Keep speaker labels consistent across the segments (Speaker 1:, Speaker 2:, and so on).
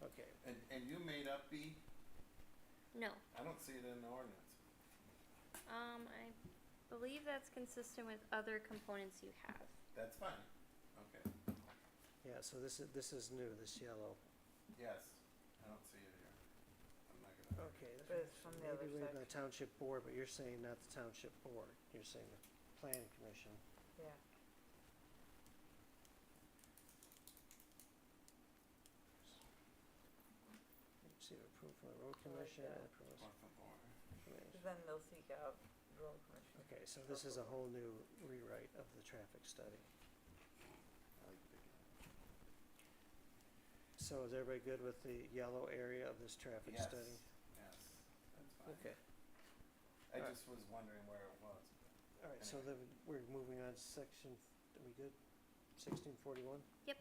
Speaker 1: Okay,
Speaker 2: And, and you may not be,
Speaker 3: No.
Speaker 2: I don't see it in the ordinance.
Speaker 3: Um, I believe that's consistent with other components you have.
Speaker 2: That's fine. Okay,
Speaker 1: yeah, so this is, this is new, this yellow.
Speaker 2: yes, I don't see it here. I'm not gonna.
Speaker 1: Okay. that's
Speaker 4: But
Speaker 1: right.
Speaker 4: it's
Speaker 1: So
Speaker 4: from the other
Speaker 1: Maybe leave the
Speaker 4: section.
Speaker 1: township board, but you're saying not the township board, you're saying the planning commission.
Speaker 4: Yeah.
Speaker 1: Receive approval from the road
Speaker 4: I like
Speaker 1: commission
Speaker 4: that.
Speaker 1: and approval
Speaker 2: Or from board.
Speaker 1: commission.
Speaker 4: Then they'll seek out road commission.
Speaker 1: Okay, so this is a whole new rewrite of the traffic study.
Speaker 2: I like the big one.
Speaker 1: So is everybody good with the yellow area of this traffic
Speaker 2: Yes,
Speaker 1: study?
Speaker 2: yes, that's fine.
Speaker 1: Okay,
Speaker 2: I
Speaker 1: alright.
Speaker 2: just was wondering where it was.
Speaker 1: all right, so then we're moving on to section, are we good? Sixteen forty-one, okay.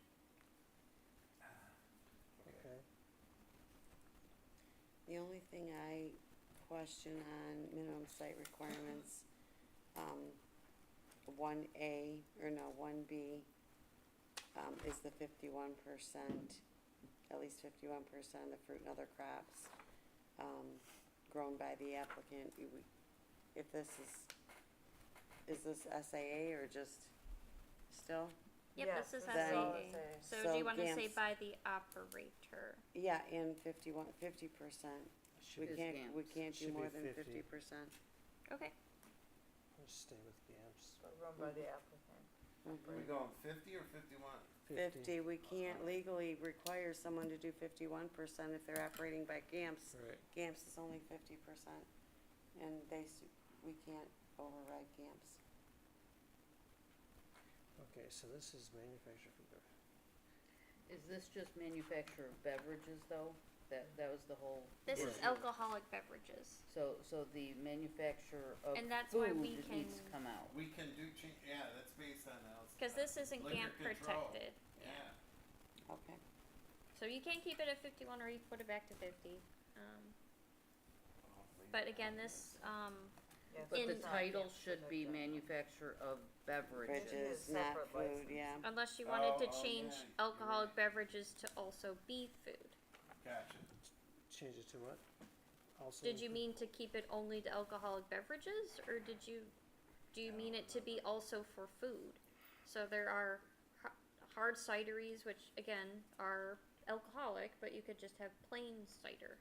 Speaker 5: The only thing I question on minimum site requirements, um, one A, or no, one B, um, is the fifty-one percent, at least fifty-one percent of fruit and other crops, um, grown by the applicant, You would- if this is, is this SAA or just still?
Speaker 3: Yep,
Speaker 4: Yes,
Speaker 3: this is
Speaker 4: this is all
Speaker 3: SAA.
Speaker 4: SAA.
Speaker 3: So, do
Speaker 5: So
Speaker 3: you want to say
Speaker 5: GAMS.
Speaker 3: by the operator?
Speaker 5: Yeah, and fifty-one, fifty percent, we
Speaker 1: Should,
Speaker 6: Is
Speaker 5: can't, we
Speaker 6: GAMS.
Speaker 5: can't do
Speaker 1: Should be
Speaker 5: more than
Speaker 1: 50.
Speaker 5: fifty percent.
Speaker 3: Okay.
Speaker 1: let's stay with GAMS.
Speaker 4: But run by the applicant.
Speaker 5: Mm-hmm.
Speaker 2: Are we going fifty or fifty-one?
Speaker 5: fifty, we can't legally require someone to do fifty-one percent if they're operating by GAMS.
Speaker 1: Right,
Speaker 5: GAMS is only fifty percent, and they, s- we can't override GAMS.
Speaker 1: okay, so this is manufactured food.
Speaker 6: Is this just manufacturer of beverages though? That, that was the whole.
Speaker 3: This is
Speaker 6: issue.
Speaker 3: alcoholic beverages.
Speaker 6: So, so the manufacturer of
Speaker 3: And that's why
Speaker 6: food
Speaker 3: we
Speaker 6: needs to
Speaker 3: can-
Speaker 6: come out.
Speaker 2: We can do change, yeah, that's based on else.
Speaker 3: Because this isn't
Speaker 2: Liquor
Speaker 3: GAMP
Speaker 2: control.
Speaker 3: protected.
Speaker 2: Yeah,
Speaker 5: Okay,
Speaker 3: So you can keep it at 51 or you can put it back to 50. Um,
Speaker 2: I'll leave
Speaker 3: but
Speaker 2: it
Speaker 3: again,
Speaker 2: out.
Speaker 3: this, um,
Speaker 4: Yes,
Speaker 6: But the
Speaker 3: In-
Speaker 4: it's not
Speaker 6: title
Speaker 4: against
Speaker 6: should be
Speaker 4: protected.
Speaker 6: manufacturer of beverages.
Speaker 5: bridges,
Speaker 4: is
Speaker 5: not
Speaker 4: separate
Speaker 5: food,
Speaker 4: license.
Speaker 5: yeah.
Speaker 3: unless you wanted
Speaker 2: Oh,
Speaker 3: to
Speaker 2: oh,
Speaker 3: change
Speaker 2: yeah, you're
Speaker 3: alcoholic
Speaker 2: right.
Speaker 3: beverages to also be food.
Speaker 2: Gotcha.
Speaker 1: Change it to what? Also
Speaker 3: Did you
Speaker 1: include-
Speaker 3: mean to keep it only to alcoholic beverages, or did you, do you mean it to be also for food? So there are h- hard cideries, which again are alcoholic, but you could just have plain cider.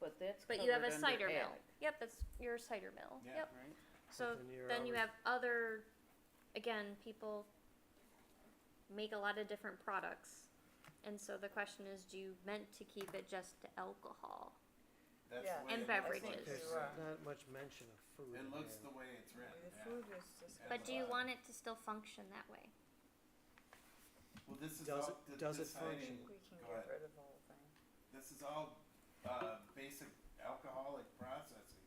Speaker 6: But that's
Speaker 3: But
Speaker 6: covered
Speaker 3: you have
Speaker 6: under
Speaker 3: a cider mill.
Speaker 6: ag,
Speaker 3: Yep, that's your cider mill.
Speaker 2: Yeah.
Speaker 3: Yep.
Speaker 6: right?
Speaker 3: So
Speaker 1: then you're
Speaker 3: then you
Speaker 1: always-
Speaker 3: have other, again, people make a lot of different products. And so the question is, do you meant to keep it just to alcohol?
Speaker 2: That's
Speaker 4: Yeah.
Speaker 2: the way
Speaker 3: And
Speaker 2: it looks like
Speaker 3: beverages.
Speaker 2: it's
Speaker 1: There's
Speaker 4: You're right.
Speaker 2: written.
Speaker 1: not much mention of food in
Speaker 2: It looks the
Speaker 1: here.
Speaker 2: way it's written,
Speaker 4: The
Speaker 2: yeah.
Speaker 4: food is discussed.
Speaker 3: But do you
Speaker 2: Alcohol.
Speaker 3: want it to still function that way?
Speaker 2: Well, this is
Speaker 1: Does
Speaker 2: all,
Speaker 1: it-
Speaker 2: th-
Speaker 1: does it
Speaker 2: this
Speaker 4: I
Speaker 1: function?
Speaker 2: hiding,
Speaker 4: think we can
Speaker 2: Go
Speaker 4: get
Speaker 2: ahead.
Speaker 4: rid of the whole thing.
Speaker 2: this is all, uh, basic alcoholic processing.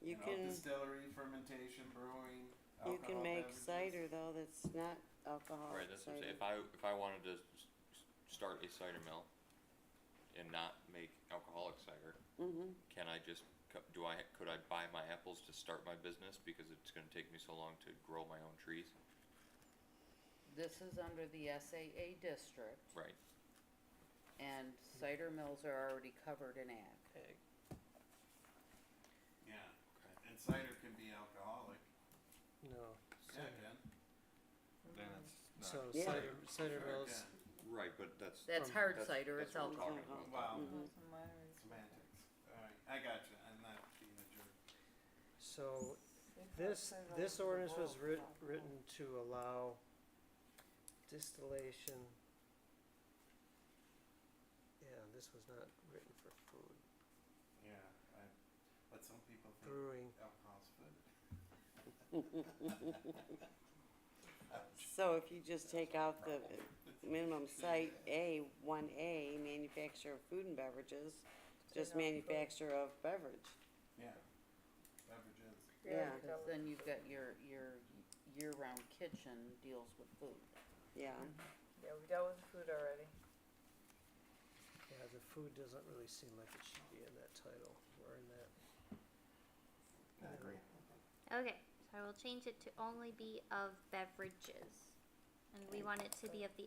Speaker 5: You
Speaker 2: know,
Speaker 5: can,
Speaker 2: Distillery, fermentation, brewing,
Speaker 5: you
Speaker 2: alcohol
Speaker 5: can make
Speaker 2: beverages.
Speaker 5: cider though, that's not alcoholic
Speaker 7: Right, that's what I'm saying,
Speaker 5: cider.
Speaker 7: if I, if I wanted to s- s- start a cider mill and not make alcoholic cider,
Speaker 5: Mm-hmm,
Speaker 7: can I just, co- do I, could I buy my apples to start my business because it's gonna take me so long to grow my own trees?
Speaker 6: This is under the SAA district
Speaker 7: Right,
Speaker 6: and cider mills are already covered in ag.
Speaker 1: Egg.
Speaker 2: Yeah, and cider can be alcoholic,
Speaker 1: No.
Speaker 2: yeah,
Speaker 1: cider.
Speaker 2: again.
Speaker 8: then
Speaker 4: Mm-hmm.
Speaker 8: it's not.
Speaker 1: So
Speaker 5: Yeah.
Speaker 1: cider, cider mills,
Speaker 7: right, but that's.
Speaker 6: That's
Speaker 1: Um,
Speaker 6: hard
Speaker 7: that's-
Speaker 6: cider,
Speaker 7: that's
Speaker 6: it's
Speaker 7: what I'm
Speaker 6: alcohol.
Speaker 7: talking
Speaker 5: alcohol.
Speaker 7: about.
Speaker 2: Wow,
Speaker 6: Mm-hmm.
Speaker 5: Mhm.
Speaker 4: It's a minor-
Speaker 2: semantics, alright, I gotcha, I'm not being a jerk.
Speaker 1: so
Speaker 4: It's
Speaker 1: This,
Speaker 4: outside
Speaker 1: this
Speaker 4: of the
Speaker 1: ordinance was
Speaker 4: world,
Speaker 1: writ-
Speaker 4: so-
Speaker 1: written to allow distillation. Yeah, this was not written for food,
Speaker 2: Yeah, I, but some people think
Speaker 1: brewing,
Speaker 2: alcohol's food.
Speaker 5: so if you just take out the minimum site A, one A, manufacturer of food and beverages,
Speaker 4: Say
Speaker 5: just
Speaker 4: no food.
Speaker 5: manufacturer of beverage.
Speaker 2: Yeah, beverages,
Speaker 5: Yeah.
Speaker 6: Cause then you've got your, your year-round kitchen deals with food.
Speaker 5: Yeah,
Speaker 4: Yeah, we dealt with food already.
Speaker 1: yeah, the food doesn't really seem like it should be in that title, or in that.
Speaker 2: I agree.
Speaker 3: Okay, so I will change it to only be of beverages. And we want it to be of the